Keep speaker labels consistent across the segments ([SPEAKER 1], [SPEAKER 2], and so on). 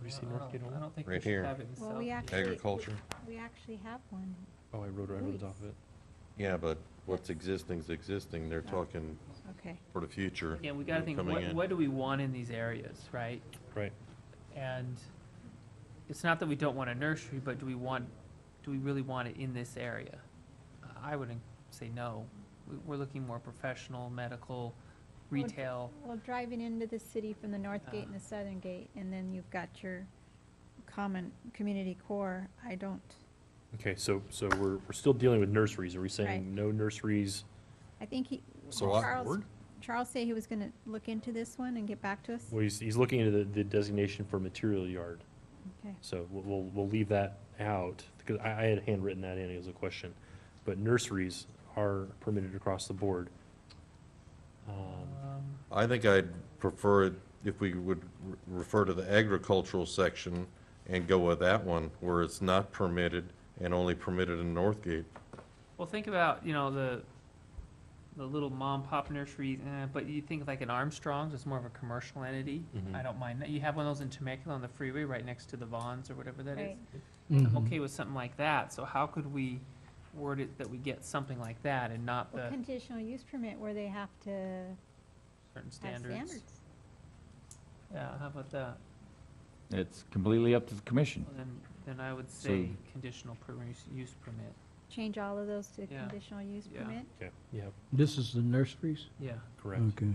[SPEAKER 1] ever seen North Gate
[SPEAKER 2] I
[SPEAKER 1] Old?
[SPEAKER 2] don't think we
[SPEAKER 3] Right
[SPEAKER 2] should
[SPEAKER 3] here.
[SPEAKER 2] have it in
[SPEAKER 4] Well,
[SPEAKER 2] South.
[SPEAKER 4] we
[SPEAKER 2] Gate.
[SPEAKER 4] actually.
[SPEAKER 3] Agriculture?
[SPEAKER 4] We actually have one.
[SPEAKER 1] Oh, I rode right over the top of it.
[SPEAKER 3] Yeah, but what's existing's existing, they're talking
[SPEAKER 4] Okay.
[SPEAKER 3] for the future.
[SPEAKER 2] Again, we gotta think,
[SPEAKER 3] coming
[SPEAKER 2] what,
[SPEAKER 3] in.
[SPEAKER 2] what do we want in these areas, right?
[SPEAKER 1] Right.
[SPEAKER 2] And it's not that we don't want a nursery, but do we want, do we really want it in this area? I wouldn't say no. We, we're looking more professional, medical,
[SPEAKER 4] Well,
[SPEAKER 2] retail.
[SPEAKER 4] Well, driving into the city from the north gate and
[SPEAKER 2] Ah.
[SPEAKER 4] the southern gate, and then you've got your common community core, I don't,
[SPEAKER 1] Okay, so, so we're, we're still dealing with nurseries. Are we
[SPEAKER 4] Right.
[SPEAKER 1] saying no nurseries?
[SPEAKER 4] I think he,
[SPEAKER 3] So I-
[SPEAKER 4] Charles,
[SPEAKER 3] Word?
[SPEAKER 4] Charles said he was gonna look into this one and get back to us?
[SPEAKER 1] Well, he's, he's looking into the, the designation for material yard.
[SPEAKER 4] Okay,
[SPEAKER 1] So we'll, we'll, we'll leave that out, because I, I had handwritten that in as a question. But nurseries are permitted across the board. Um,
[SPEAKER 2] Um,
[SPEAKER 3] I think I'd prefer it if we would re- refer to the agricultural section and go with that one, where it's not permitted and only permitted in Northgate.
[SPEAKER 2] Well, think about, you know, the, the little mom pop nurseries, eh, but you think like an Armstrong's, it's more of a commercial entity. I
[SPEAKER 3] Mm-hmm.
[SPEAKER 1] Mhm.
[SPEAKER 2] don't mind that. You have one of those in Temecula on the freeway right next to the Vons or whatever that is.
[SPEAKER 4] Right.
[SPEAKER 2] I'm
[SPEAKER 1] Mm-hmm.
[SPEAKER 2] okay with something like that, so how could we word it that we get something like that and not
[SPEAKER 4] well,
[SPEAKER 2] the
[SPEAKER 4] conditional use permit where they have to
[SPEAKER 2] certain
[SPEAKER 4] have
[SPEAKER 2] standards?
[SPEAKER 4] standards.
[SPEAKER 2] Yeah, how about that?
[SPEAKER 5] It's completely up to the commission.
[SPEAKER 2] Well, Then, then I would
[SPEAKER 5] So-
[SPEAKER 2] say conditional permis- use permit,
[SPEAKER 4] Change all of those to
[SPEAKER 2] Yeah.
[SPEAKER 4] conditional use
[SPEAKER 2] Yeah.
[SPEAKER 4] permit?
[SPEAKER 1] Okay, yeah,
[SPEAKER 6] This is the nurseries?
[SPEAKER 2] yeah.
[SPEAKER 1] correct.
[SPEAKER 6] Okay.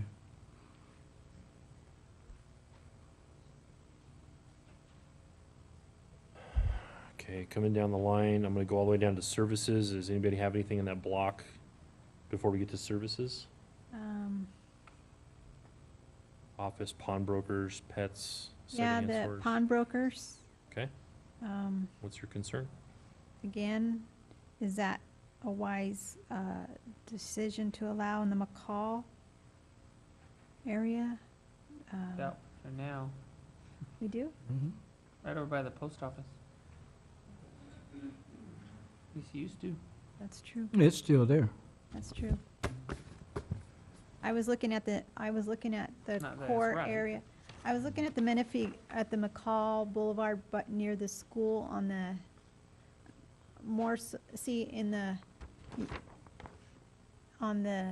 [SPEAKER 1] Okay, coming down the line, I'm gonna go all the way down to services. Does anybody have anything in that block before we get to services?
[SPEAKER 4] Um,
[SPEAKER 1] Office, pawnbrokers, pets,
[SPEAKER 4] yeah,
[SPEAKER 1] secondhand
[SPEAKER 4] the
[SPEAKER 1] stores?
[SPEAKER 4] pawnbrokers,
[SPEAKER 1] Okay,
[SPEAKER 4] um,
[SPEAKER 1] what's your concern?
[SPEAKER 4] again, is that a wise uh, decision to allow in the McCall area? Um,
[SPEAKER 2] That, for now,
[SPEAKER 4] We do?
[SPEAKER 6] Mm-hmm.
[SPEAKER 2] right over by the post office. At least it used to.
[SPEAKER 4] That's true,
[SPEAKER 6] It's still there.
[SPEAKER 4] that's true. I was looking at the, I was looking at the
[SPEAKER 2] Not that it's
[SPEAKER 4] core
[SPEAKER 2] right.
[SPEAKER 4] area. I was looking at the Menifee, at the McCall Boulevard, but near the school on the, more, s- see, in the, on the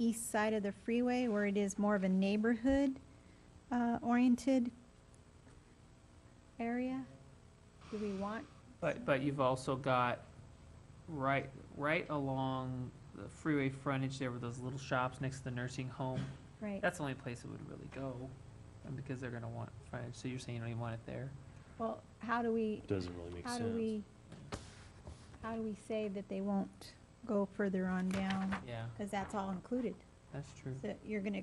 [SPEAKER 4] east side of the freeway where it is more of a neighborhood uh, oriented area. Do we want,
[SPEAKER 2] But, but you've also got right, right along the freeway frontage there were those little shops next to the nursing home.
[SPEAKER 4] right,
[SPEAKER 2] That's the only place it would really go, and because they're gonna want frontage, so you're saying you don't even want it there?
[SPEAKER 4] well, how do we,
[SPEAKER 1] Doesn't really make
[SPEAKER 4] How
[SPEAKER 1] sense.
[SPEAKER 4] do we, how do we say that they won't go further on down?
[SPEAKER 2] Yeah,
[SPEAKER 4] Because that's all included.
[SPEAKER 2] that's true.
[SPEAKER 4] So you're going to,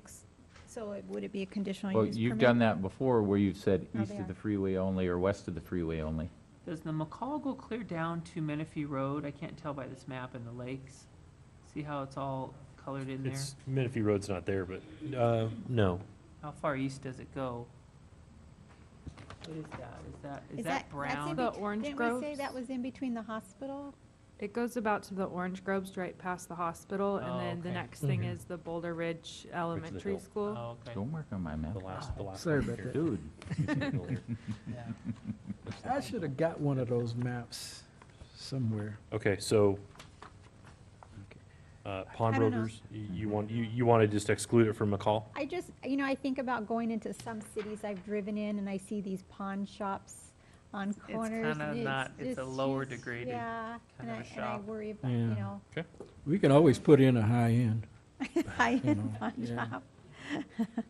[SPEAKER 4] so it- would it be a conditional
[SPEAKER 5] Well,
[SPEAKER 4] use permit?
[SPEAKER 5] you've done that before where you've said
[SPEAKER 4] No,
[SPEAKER 5] east
[SPEAKER 4] they
[SPEAKER 5] of the
[SPEAKER 4] are.
[SPEAKER 5] freeway only or west of the freeway only.
[SPEAKER 2] Does the McCall go clear down to Menifee Road? I can't tell by this map and the lakes. See how it's all colored in there?
[SPEAKER 1] It's, Menifee Road's not there, but, uh, no.
[SPEAKER 2] How far east does it go? What is that? Is that, is that
[SPEAKER 4] that's in
[SPEAKER 2] brown?
[SPEAKER 7] The
[SPEAKER 4] bet-
[SPEAKER 7] orange
[SPEAKER 4] Didn't we say
[SPEAKER 7] groves?
[SPEAKER 4] that was in between the hospital?
[SPEAKER 7] It goes about to the orange groves right past the hospital,
[SPEAKER 2] Oh,
[SPEAKER 7] and then the
[SPEAKER 2] okay.
[SPEAKER 7] next thing
[SPEAKER 6] Mhm.
[SPEAKER 7] is the Boulder Ridge Elementary
[SPEAKER 1] hill.
[SPEAKER 7] School.
[SPEAKER 2] Oh, okay,
[SPEAKER 5] Don't work on my map.
[SPEAKER 1] The last, the last.
[SPEAKER 6] Sorry
[SPEAKER 1] one
[SPEAKER 6] about
[SPEAKER 1] here.
[SPEAKER 5] Dude,
[SPEAKER 2] yeah.
[SPEAKER 6] I should have got one of those maps somewhere.
[SPEAKER 1] Okay, so, uh, pawnbrokers, you, you want, you, you want to just exclude it from McCall?
[SPEAKER 4] I just, you know, I think about going into some cities I've driven in and I see these pawn shops on
[SPEAKER 2] it's
[SPEAKER 4] corners. and
[SPEAKER 2] kinda not- it's a
[SPEAKER 4] just-
[SPEAKER 2] lower
[SPEAKER 4] just-
[SPEAKER 2] degraded
[SPEAKER 4] Yeah, and
[SPEAKER 2] kind of
[SPEAKER 4] I,
[SPEAKER 2] a
[SPEAKER 4] and I
[SPEAKER 2] shop.
[SPEAKER 4] worry about,
[SPEAKER 6] Yeah.
[SPEAKER 4] you know,
[SPEAKER 6] We can always put in a high end.
[SPEAKER 4] high-end pawn
[SPEAKER 6] yeah.
[SPEAKER 4] shop.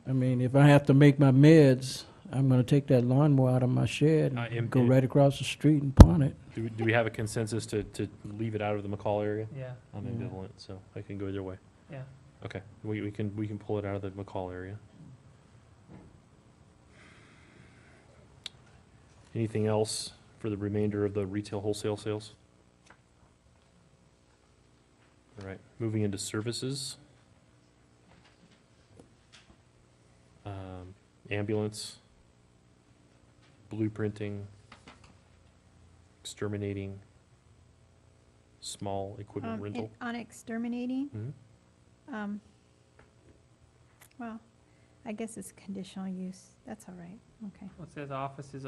[SPEAKER 6] I mean, if I have to make my meds, I'm gonna take that lawnmower out of my shed
[SPEAKER 1] Uh,
[SPEAKER 6] and
[SPEAKER 1] and-
[SPEAKER 6] go
[SPEAKER 1] and-
[SPEAKER 6] right across the street and pawn it.
[SPEAKER 1] Do, we- do we have a consensus to, to leave it out of the McCall area?
[SPEAKER 2] Yeah,
[SPEAKER 1] I'm
[SPEAKER 6] Yeah.
[SPEAKER 1] ambivalent, so I can go either way.
[SPEAKER 2] yeah.
[SPEAKER 1] Okay, we, we can, we can pull it out of the McCall area. Anything else for the remainder of the retail wholesale sales? All right, moving into services. Um, Ambulance, blueprinting, exterminating, small equipment
[SPEAKER 4] Um, in-
[SPEAKER 1] rental.
[SPEAKER 4] On exterminating,
[SPEAKER 1] Mhm.
[SPEAKER 4] Um, well, I guess it's conditional use, that's all right, okay.
[SPEAKER 2] Well, it says offices